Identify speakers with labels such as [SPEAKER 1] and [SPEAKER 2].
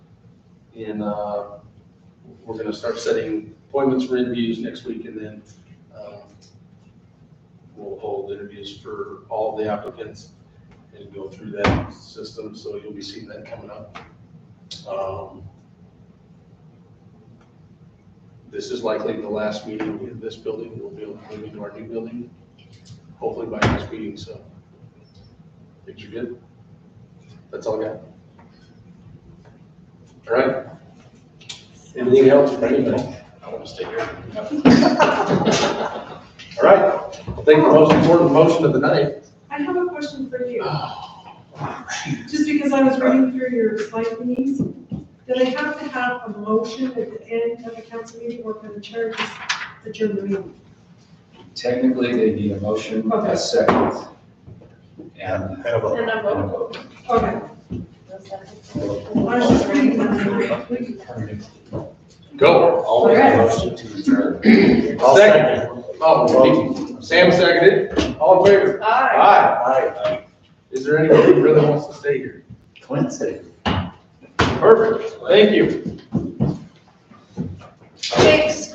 [SPEAKER 1] And uh, we're going to start setting appointments for interviews next week, and then um, we'll hold interviews for all the applicants and go through that system, so you'll be seeing that coming up. Um, This is likely the last meeting in this building, we'll be moving to our new building, hopefully by next meeting, so. Things are good. That's all I got. All right. Anything else for anybody? I want to stay here. All right, I think the most important motion of the night.
[SPEAKER 2] I have a question for you. Just because I was reading through your findings, do they have to have a motion at the end of the council meeting or can the chair just adjourn the meeting?
[SPEAKER 3] Technically, they need a motion, a second, and
[SPEAKER 4] Kind of a-
[SPEAKER 5] And I'm
[SPEAKER 3] and a
[SPEAKER 5] voting.
[SPEAKER 3] vote.
[SPEAKER 2] Okay, I was just reading that.
[SPEAKER 1] Go.
[SPEAKER 3] I'll make a motion to adjourn.
[SPEAKER 4] I'll second.
[SPEAKER 1] Oh, Nikki. Sam seconded. All in favor?
[SPEAKER 5] Aye.
[SPEAKER 1] Aye.
[SPEAKER 4] Aye.
[SPEAKER 1] Is there anyone who really wants to stay here?
[SPEAKER 3] Quincy.
[SPEAKER 1] Perfect. Thank you.
[SPEAKER 5] Thanks.